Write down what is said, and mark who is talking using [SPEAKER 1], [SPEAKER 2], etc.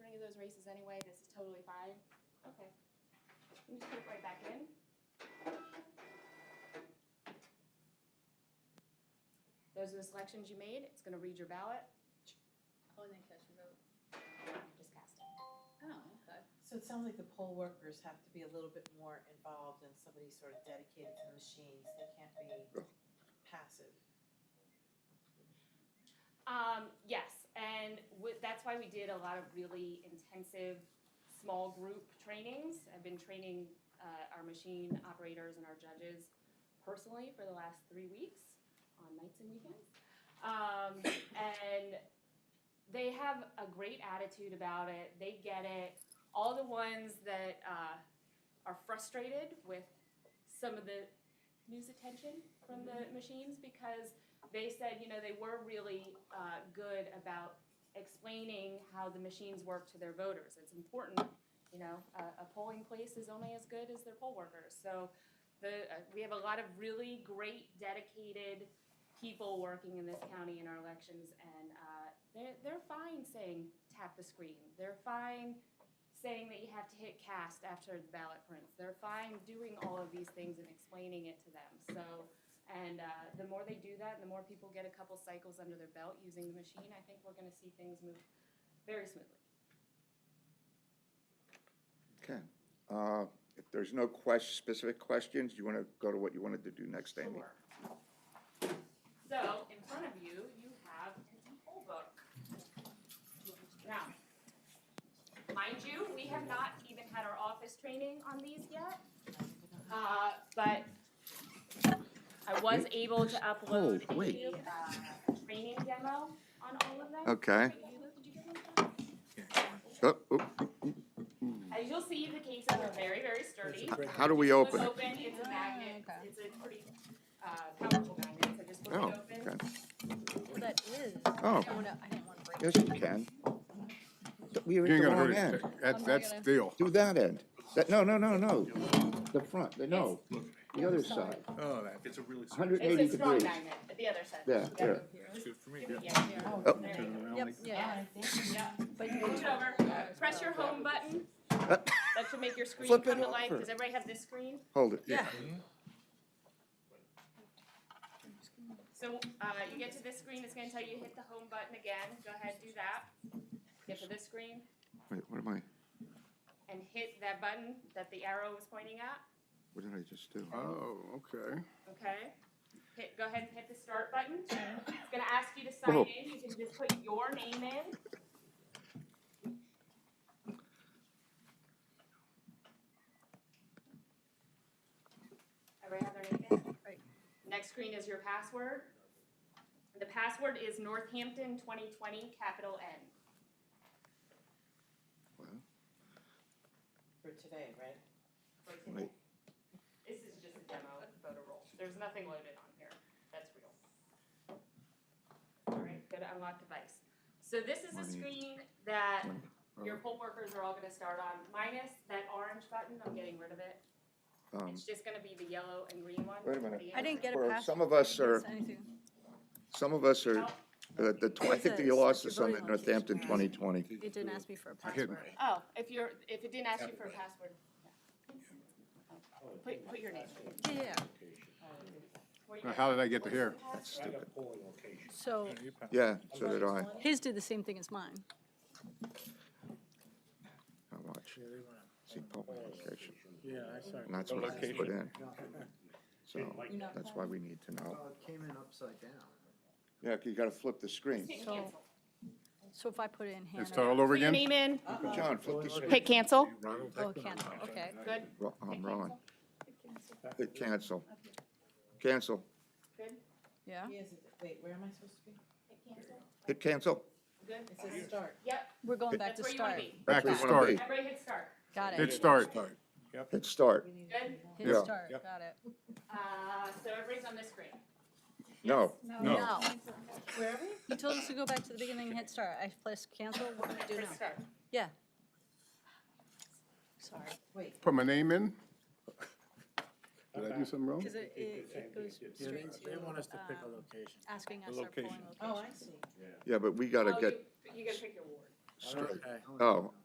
[SPEAKER 1] races anyway, this is totally fine. Okay. You just put it right back in. Those are the selections you made, it's gonna read your ballot,
[SPEAKER 2] Oh, and then catch your vote.
[SPEAKER 1] just cast it.
[SPEAKER 2] Oh, okay.
[SPEAKER 3] So it sounds like the poll workers have to be a little bit more involved and somebody sort of dedicated to the machines, they can't be passive.
[SPEAKER 1] Um, yes, and wi- that's why we did a lot of really intensive small group trainings. I've been training uh, our machine operators and our judges personally for the last three weeks on nights and weekends. Um, and they have a great attitude about it. They get it. All the ones that uh, are frustrated with some of the news attention from the machines because they said, you know, they were really uh, good about explaining how the machines work to their voters. It's important, you know, a, a polling place is only as good as their poll workers. So the, uh, we have a lot of really great, dedicated people working in this county in our elections, and uh, they're, they're fine saying tap the screen. They're fine saying that you have to hit cast after the ballot prints. They're fine doing all of these things and explaining it to them. So and uh, the more they do that, and the more people get a couple cycles under their belt using the machine, I think we're going to see things move very smoothly.
[SPEAKER 4] Okay. Uh, If there's no ques- specific questions, you want to go to what you wanted to do next, Amy?
[SPEAKER 1] Sure. So in front of you, you have an poll book. Now, mind you, we have not even had our office training on these yet, uh, but I was able to upload
[SPEAKER 4] Oh, wait.
[SPEAKER 1] a uh, training demo on all of them.
[SPEAKER 4] Okay.
[SPEAKER 1] Did you- did you get one, John?
[SPEAKER 4] Oh, oh,
[SPEAKER 1] As you'll see, the cases are very, very sturdy.
[SPEAKER 4] h- How do we open
[SPEAKER 1] Flip
[SPEAKER 4] it?
[SPEAKER 1] Open, it's a magnet,
[SPEAKER 2] Okay.
[SPEAKER 1] it's a pretty, uh, powerful magnet, so just flip
[SPEAKER 4] Oh,
[SPEAKER 1] it open.
[SPEAKER 4] okay.
[SPEAKER 2] Well, that is.
[SPEAKER 4] Oh.
[SPEAKER 2] I don't wanna, I didn't wanna break.
[SPEAKER 4] Yes, you can. We are at
[SPEAKER 5] You
[SPEAKER 4] the
[SPEAKER 5] ain't gonna
[SPEAKER 4] wrong
[SPEAKER 5] hurt
[SPEAKER 4] end.
[SPEAKER 5] it. That,
[SPEAKER 2] I'm not
[SPEAKER 5] that's
[SPEAKER 2] gonna-
[SPEAKER 5] deal.
[SPEAKER 4] Do that end. That, no, no, no, no. The front, the- no, the other side.
[SPEAKER 5] Oh, that,
[SPEAKER 6] It's a really.
[SPEAKER 4] Hundred eighty
[SPEAKER 1] It's a strong
[SPEAKER 4] degrees.
[SPEAKER 1] magnet, but the other side.
[SPEAKER 4] There,
[SPEAKER 1] Yeah.
[SPEAKER 4] there.
[SPEAKER 6] That's good for me.
[SPEAKER 1] Yeah, there.
[SPEAKER 3] Oh.
[SPEAKER 1] There you go.
[SPEAKER 2] Yep, yeah,
[SPEAKER 1] Yeah.
[SPEAKER 2] but
[SPEAKER 1] Push it over, press your home button, that should make your screen come
[SPEAKER 4] Flip it
[SPEAKER 1] to life,
[SPEAKER 4] over.
[SPEAKER 1] does everybody have this screen?
[SPEAKER 4] Hold it.
[SPEAKER 2] yeah.
[SPEAKER 1] So, uh, you get to this screen, it's gonna tell you hit the home button again, go ahead, do that. Get to this screen
[SPEAKER 4] Wait, what am I,
[SPEAKER 1] and hit that button that the arrow was pointing at.
[SPEAKER 4] what did I just do?
[SPEAKER 5] oh, okay.
[SPEAKER 1] Okay. Hit, go ahead and hit the start button. It's gonna ask you to sign
[SPEAKER 4] Oh.
[SPEAKER 1] in. You can just put your name in. Everybody have their name in?
[SPEAKER 2] Right.
[SPEAKER 1] Next screen is your password. The password is Northampton twenty twenty, capital N.
[SPEAKER 3] For today, right?
[SPEAKER 4] Wait.
[SPEAKER 1] This is just a demo of voter roll. There's nothing loaded on here. That's real. All right, go to unlock device. So this is a
[SPEAKER 4] Money.
[SPEAKER 1] screen that
[SPEAKER 4] Money.
[SPEAKER 1] your poll workers are all gonna start on, minus that orange button, I'm getting rid of it.
[SPEAKER 4] Um,
[SPEAKER 1] It's just gonna be the yellow and green one.
[SPEAKER 4] Wait a minute.
[SPEAKER 1] The
[SPEAKER 2] I didn't get a
[SPEAKER 4] Or
[SPEAKER 2] pass.
[SPEAKER 4] some of us are-
[SPEAKER 2] Anything.
[SPEAKER 4] Some of us are, uh, the, tw- I think that you lost us on the Northampton twenty twenty.
[SPEAKER 2] It didn't ask me for a
[SPEAKER 5] I hit
[SPEAKER 2] password.
[SPEAKER 1] Oh, if you're, if it didn't ask you for a password. Put, put your name.
[SPEAKER 2] Yeah, yeah,
[SPEAKER 1] Where you
[SPEAKER 5] Now,
[SPEAKER 1] at?
[SPEAKER 5] how did I get to here?
[SPEAKER 6] I got polling location.
[SPEAKER 2] so
[SPEAKER 4] Yeah, so did I.
[SPEAKER 2] his did the same thing as mine.
[SPEAKER 4] How much? See, poll location,
[SPEAKER 7] Yeah, I saw.
[SPEAKER 4] and that's what I put in. So,
[SPEAKER 2] You're not
[SPEAKER 4] that's why we need to know.
[SPEAKER 7] Oh, it came in upside down.
[SPEAKER 4] Yeah, you gotta flip the screen.
[SPEAKER 1] Hit
[SPEAKER 2] So-
[SPEAKER 1] cancel.
[SPEAKER 2] So if I put in Hannah.
[SPEAKER 5] It's total over
[SPEAKER 1] Put your
[SPEAKER 5] again?
[SPEAKER 1] name in,
[SPEAKER 4] John, flip the screen.
[SPEAKER 1] hit cancel.
[SPEAKER 2] Oh, cancel, okay.
[SPEAKER 1] Good,
[SPEAKER 4] Ro- I'm wrong. Hit
[SPEAKER 7] Back-
[SPEAKER 4] cancel. Cancel.
[SPEAKER 1] good,
[SPEAKER 2] Yeah,
[SPEAKER 3] Yes, it- wait, where am I supposed to be?
[SPEAKER 1] hit cancel,
[SPEAKER 4] Hit cancel.
[SPEAKER 1] good.
[SPEAKER 3] It says start.
[SPEAKER 1] Yep,
[SPEAKER 2] we're going back
[SPEAKER 1] that's
[SPEAKER 2] to
[SPEAKER 1] where you wanna
[SPEAKER 2] start.
[SPEAKER 1] be.
[SPEAKER 5] Back to
[SPEAKER 4] That's where you wanna
[SPEAKER 5] start.
[SPEAKER 1] Everybody hit start.
[SPEAKER 2] Got
[SPEAKER 5] Hit
[SPEAKER 2] it.
[SPEAKER 5] start.
[SPEAKER 4] Hit start.
[SPEAKER 3] We need to
[SPEAKER 1] Good.
[SPEAKER 3] do
[SPEAKER 2] Hit
[SPEAKER 4] Yeah.
[SPEAKER 2] start,
[SPEAKER 5] Yep.
[SPEAKER 2] got it.
[SPEAKER 1] Uh, so everybody's on this screen.
[SPEAKER 4] No,
[SPEAKER 5] No.
[SPEAKER 3] that. Where are we?
[SPEAKER 2] You told us to go back to the beginning and hit start. I pressed cancel. What do I do
[SPEAKER 1] Press
[SPEAKER 2] now?
[SPEAKER 1] start.
[SPEAKER 2] Yeah. Sorry.
[SPEAKER 3] Wait,
[SPEAKER 5] Put my name in? Did I do something wrong?
[SPEAKER 2] Because it, it it goes
[SPEAKER 7] They
[SPEAKER 2] straight
[SPEAKER 7] they want
[SPEAKER 2] to
[SPEAKER 7] us to pick a
[SPEAKER 2] um,
[SPEAKER 7] location.
[SPEAKER 2] asking us
[SPEAKER 6] The
[SPEAKER 2] our polling
[SPEAKER 6] location.
[SPEAKER 3] oh,
[SPEAKER 2] location.
[SPEAKER 3] I see.
[SPEAKER 4] yeah, but we gotta
[SPEAKER 1] Oh,
[SPEAKER 4] get
[SPEAKER 1] you- You gotta pick your ward.
[SPEAKER 4] straight.
[SPEAKER 7] Okay.
[SPEAKER 4] Oh,